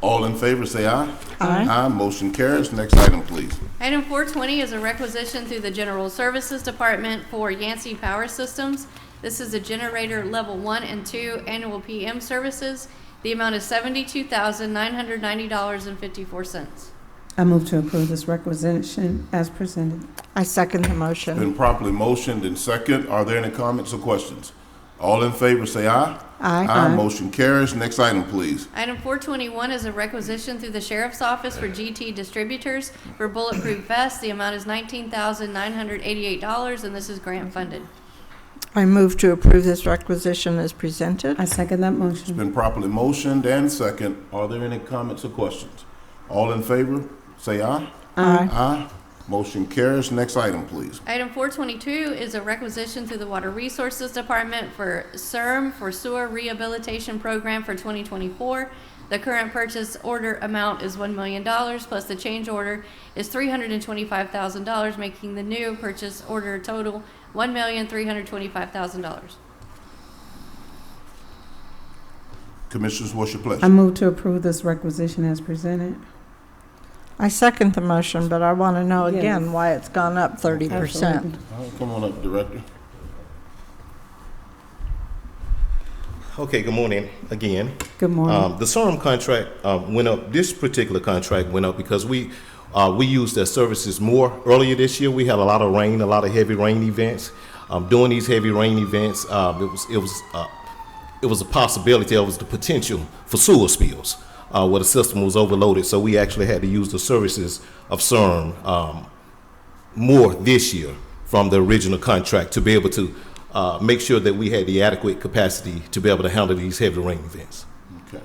All in favor, say aye. Aye. Aye, motion carries. Next item, please. Item 420 is a requisition through the General Services Department for Yancey Power Systems. This is a generator level one and two annual PM services. The amount is $72,990.54. I move to approve this requisition as presented. I second the motion. Been properly motioned and second. Are there any comments or questions? All in favor, say aye. Aye, Aye. Aye. motion carries. Next item, please. Item 421 is a requisition through the Sheriff's Office for GT Distributors for bulletproof vests. The amount is $19,988, and this is grant funded. I move to approve this requisition as presented. I second that motion. Been properly motioned and second. Are there any comments or questions? All in favor, say aye. Aye. Aye, motion carries. Next item, please. Item 422 is a requisition through the Water Resources Department for CERM for Sewer Rehabilitation Program for 2024. The current purchase order amount is $1 million, plus the change order is $325,000, making the new purchase order total $1,325,000. Commissioners, what's your I pleasure? move to approve this requisition as presented. I second the motion, but I want to know Yes. again why it's gone up 30%. Absolutely. All right, Come on up, Director. Okay, good morning again. Good morning. Um, the SORM contract um, went up, this particular contract went up because we, uh, we used their services more earlier this year. We had a lot of rain, a lot of heavy rain events. Um, during these heavy rain events, um, it was, it was, uh, it was a possibility, it was the potential for sewer spills uh, where the system was overloaded. So we actually had to use the services of CERM um, more this year from the original contract to be able to uh, make sure that we had the adequate capacity to be able to handle these heavy rain events. Okay.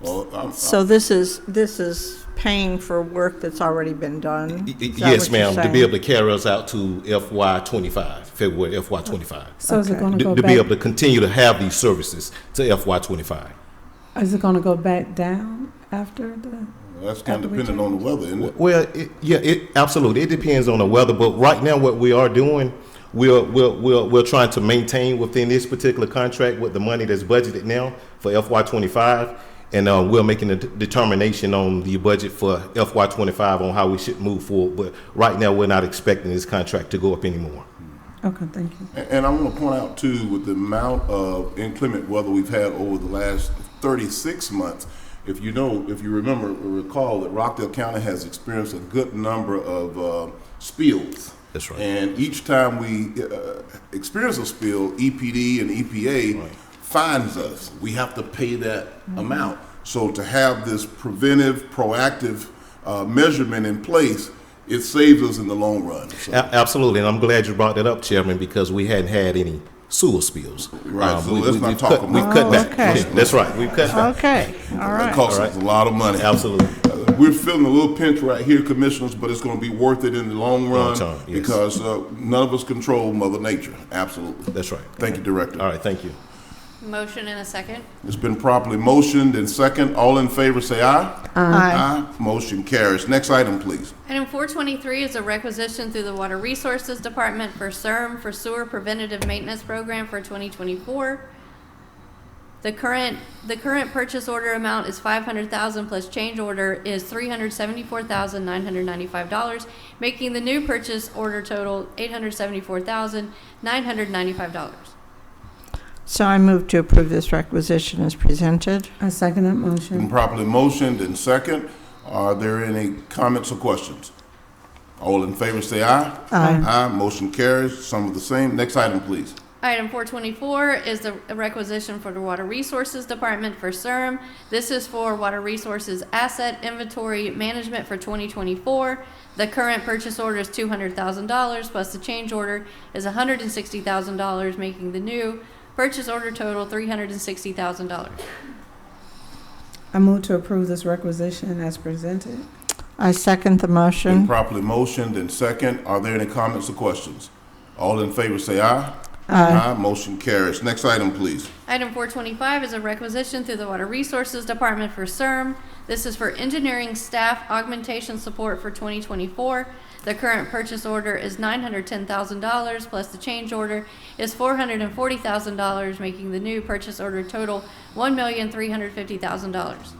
Well, I'm- So this is, this is paying for work that's already been done? Y- y- Is that Yes, what you're ma'am, to be saying? able to carry us out to FY twenty-five, February FY twenty-five. So is it okay. going to To go to be able back, to continue to have these services to FY twenty-five. is it going to go back down after the, That's kind After of we dependent on the weather, isn't it? Well, it, yeah, it, absolutely, it depends on the weather, but right now, what we are doing, we're, we're, we're, we're trying to maintain within this particular contract with the money that's budgeted now for FY twenty-five, and, uh, we're making a d- determination on the budget for FY twenty-five on how we should move forward, but right now, we're not expecting this contract to go up anymore. okay, thank you. And and I want to point out too, with the amount of inclement weather we've had over the last 36 months, if you know, if you remember, or recall that Rockdale County has experienced a good number of uh, spills. That's right. And each time we uh, experience a spill, EPD and E EPA fines us. We have to pay that amount. So to have this preventive, proactive uh, measurement in place, it saves us in the long run. So- A- Absolutely, and I'm glad you brought that up, Chairman, because we hadn't had any sewer spills. Right, Um, so we- let's we- not we've talk cut- about We've cut it. back. Oh, Okay. Yeah, That's right, we've cut back. Okay, all It right. costs us a lot of money. Absolutely. Uh, We're feeling a little pinch right here, commissioners, but it's going to be worth it in the long run term, yes. because uh, none of us control Mother Nature. Absolutely. That's right. Thank you, Director. All right, thank you. Motion and a second. It's been properly motioned and second. All in favor, say aye. Aye. Motion carries. Next item, please. Item 423 is a requisition through the Water Resources Department for CERM for Sewer Preventative Maintenance Program for 2024. The current, the current purchase order amount is 500,000 plus change order is $374,995, making the new purchase order total $874,995. So I move to approve this requisition as presented. I second that Been motion. properly motioned and second. Are there any comments or questions? All in favor, say aye. Aye. Aye. Motion carries. Some of the same. Next item, please. Item 424 is the requisition for the Water Resources Department for CERM. This is for Water Resources Asset Inventory Management for 2024. The current purchase order is $200,000, plus the change order is $160,000, making the new purchase order total $360,000. I move to approve this requisition as presented. I second the Been motion. properly motioned and second. Are there any comments or questions? All in favor say aye. Aye. Motion carries. Next item, please. Item 425 is a requisition through the Water Resources Department for CERM. This is for engineering staff augmentation support for 2024. The current purchase order is $910,000, plus the change order is $440,000, making the new purchase order total $1,350,000.